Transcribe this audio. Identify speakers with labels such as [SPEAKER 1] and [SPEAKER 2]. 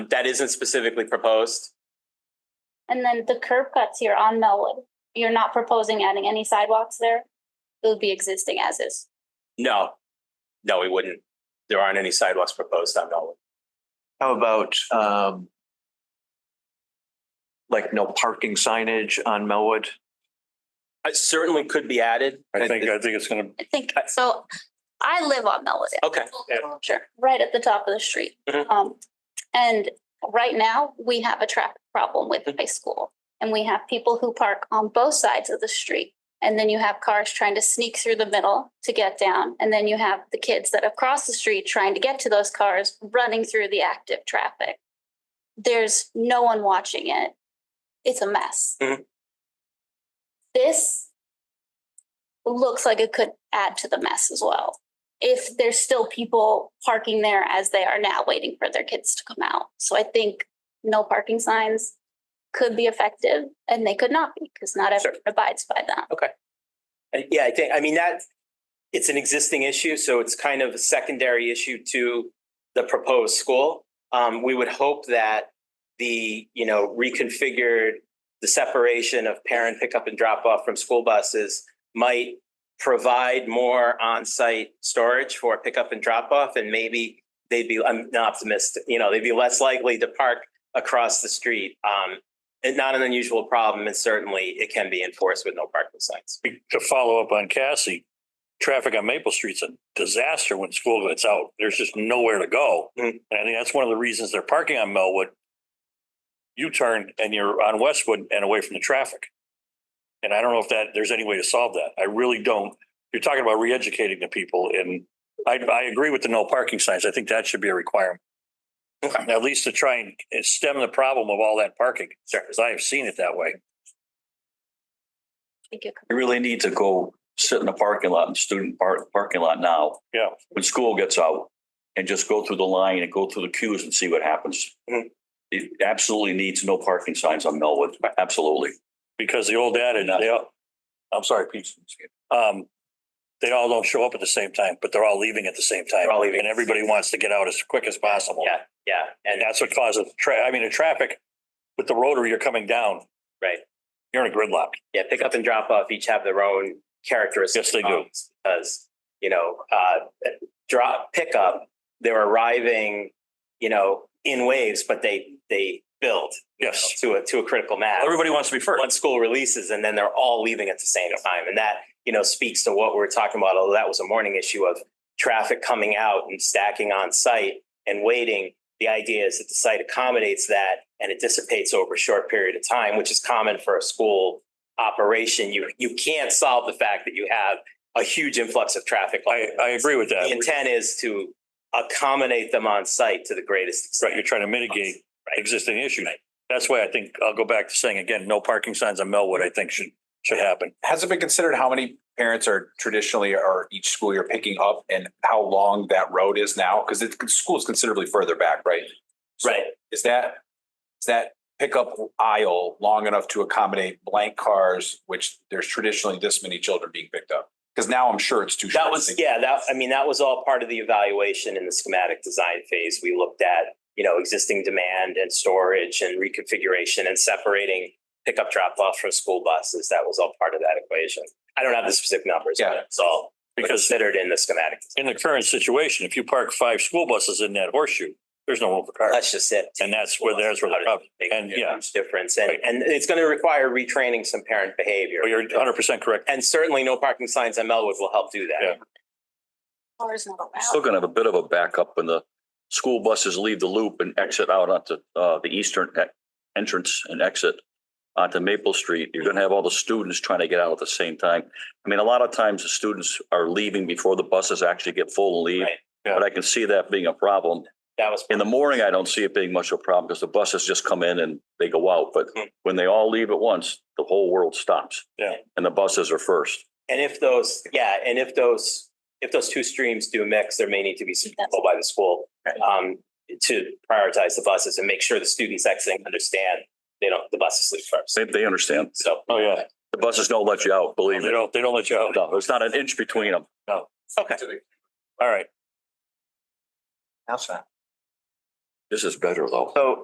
[SPEAKER 1] That isn't specifically proposed.
[SPEAKER 2] And then the curb cuts here on Melwood, you're not proposing adding any sidewalks there? It would be existing as is.
[SPEAKER 1] No, no, we wouldn't. There aren't any sidewalks proposed on Melwood.
[SPEAKER 3] How about um like no parking signage on Melwood?
[SPEAKER 1] It certainly could be added.
[SPEAKER 4] I think, I think it's gonna,
[SPEAKER 2] I think, so I live on Melwood.
[SPEAKER 1] Okay,
[SPEAKER 2] Sure, right at the top of the street.
[SPEAKER 1] Mhm.
[SPEAKER 2] Um, and right now, we have a traffic problem with the
[SPEAKER 1] Mhm.
[SPEAKER 2] high school. And we have people who park on both sides of the street. And then you have cars trying to sneak through the middle to get down. And then you have the kids that have crossed the street trying to get to those cars, running through the active traffic. There's no one watching it. It's a mess.
[SPEAKER 1] Mhm.
[SPEAKER 2] This looks like it could add to the mess as well if there's still people parking there as they are now waiting for their kids to come out. So I think no parking signs could be effective and they could not be because not everyone abides by them.
[SPEAKER 1] Uh, yeah, I think, I mean, that, it's an existing issue, so it's kind of a secondary issue to the proposed school. Um, we would hope that the, you know, reconfigured, the separation of parent pickup and drop off from school buses might provide more on-site storage for pickup and drop off and maybe they'd be, I'm an optimist, you know, they'd be less likely to park across the street. Um, and not an unusual problem, and certainly it can be enforced with no parking signs.
[SPEAKER 4] to follow up on Cassie, traffic on Maple Street's a disaster when school gets out. There's just nowhere to go.
[SPEAKER 1] Mm.
[SPEAKER 4] And I think that's one of the reasons they're parking on Melwood. You turn and you're on Westwood and away from the traffic. And I don't know if that, there's any way to solve that. I really don't. You're talking about re-educating the people and I, I agree with the no parking signs. I think that should be a requirement.
[SPEAKER 1] Okay.
[SPEAKER 4] At least to try and stem the problem of all that parking, because I have seen it that way.
[SPEAKER 2] I think it could-
[SPEAKER 5] You really need to go sit in the parking lot in student park, parking lot now.
[SPEAKER 4] Yeah.
[SPEAKER 5] When school gets out and just go through the line and go through the queues and see what happens.
[SPEAKER 1] Mhm.
[SPEAKER 5] It absolutely needs no parking signs on Melwood. Absolutely.
[SPEAKER 4] because the old adage, they all, I'm sorry, Pete. Um, they all don't show up at the same time, but they're all leaving at the same time.
[SPEAKER 1] They're all leaving.
[SPEAKER 4] And everybody wants to get out as quick as possible.
[SPEAKER 1] Yeah, yeah,
[SPEAKER 4] And
[SPEAKER 1] and
[SPEAKER 4] that's what causes, tra- I mean, the traffic with the rotary, you're coming down.
[SPEAKER 1] Right.
[SPEAKER 4] You're in a gridlock.
[SPEAKER 1] yeah, pick up and drop off each have their own characteristics.
[SPEAKER 4] Yes, they do.
[SPEAKER 1] problems Because, you know, uh, drop, pick up, they're arriving, you know, in waves, but they, they build. you know,
[SPEAKER 4] Yes.
[SPEAKER 1] To a, to a critical mass.
[SPEAKER 4] Everybody wants to be first.
[SPEAKER 1] One school releases and then they're all leaving at the same time. And that, you know, speaks to what we're talking about, although that was a morning issue of traffic coming out and stacking on site and waiting. The idea is that the site accommodates that and it dissipates over a short period of time, which is common for a school operation. You, you can't solve the fact that you have a huge influx of traffic.
[SPEAKER 4] I, I agree with
[SPEAKER 1] The
[SPEAKER 4] that.
[SPEAKER 1] intent is to accommodate them on site to the greatest
[SPEAKER 4] Right, you're
[SPEAKER 1] extent.
[SPEAKER 4] trying to mitigate existing issues. That's why I think, I'll go back to saying again, no parking signs on Melwood, I think should, should happen.
[SPEAKER 6] Has it been considered how many parents are traditionally are each school you're picking up and how long that road is now? Because the school is considerably further back, right? So
[SPEAKER 1] Right.
[SPEAKER 6] Is that, is that pickup aisle long enough to accommodate blank cars, which there's traditionally this many children being picked up? Because now I'm sure it's too short.
[SPEAKER 1] That was, yeah, that, I mean, that was all part of the evaluation in the schematic design phase. We looked at, you know, existing demand and storage and reconfiguration and separating pickup drop off from school buses. That was all part of that equation. I don't have the specific numbers,
[SPEAKER 6] Yeah.
[SPEAKER 1] but it's all
[SPEAKER 4] Because
[SPEAKER 1] considered in the schematic.
[SPEAKER 4] in the current situation, if you park five school buses in that horseshoe, there's no room for cars.
[SPEAKER 1] That's just it.
[SPEAKER 4] And that's where there's where the problem.
[SPEAKER 1] Make
[SPEAKER 4] And
[SPEAKER 1] a
[SPEAKER 4] yeah,
[SPEAKER 1] huge difference. And,
[SPEAKER 4] Right.
[SPEAKER 1] and it's going to require retraining some parent behavior.
[SPEAKER 4] well, you're hundred percent correct.
[SPEAKER 1] And certainly no parking signs on Melwood will help do
[SPEAKER 4] Yeah.
[SPEAKER 1] that.
[SPEAKER 2] Cars not
[SPEAKER 5] Still
[SPEAKER 2] allowed.
[SPEAKER 5] gonna have a bit of a backup when the school buses leave the loop and exit out onto uh the eastern e- entrance and exit onto Maple Street. You're gonna have all the students trying to get out at the same time. I mean, a lot of times the students are leaving before the buses actually get full and leave.
[SPEAKER 1] Right.
[SPEAKER 4] Yeah.
[SPEAKER 5] But I can see that being a problem.
[SPEAKER 1] That was.
[SPEAKER 5] In the morning, I don't see it being much of a problem because the buses just come in and they go out. But
[SPEAKER 1] Hmm.
[SPEAKER 5] when they all leave at once, the whole world stops.
[SPEAKER 4] Mm-hmm. Yeah.
[SPEAKER 5] And the buses are first.
[SPEAKER 1] And if those, yeah, and if those, if those two streams do mix, there may need to be some control by the school um, to prioritize the buses and make sure the students exiting understand they don't, the buses leave first.
[SPEAKER 5] They, they understand.
[SPEAKER 1] So,
[SPEAKER 4] Oh, yeah.
[SPEAKER 5] The buses don't let you out,
[SPEAKER 4] They
[SPEAKER 5] believe me.
[SPEAKER 4] don't, they don't let you out.
[SPEAKER 5] No, there's not an inch between them.
[SPEAKER 4] All right.
[SPEAKER 6] How's that?
[SPEAKER 4] This is better though.
[SPEAKER 1] So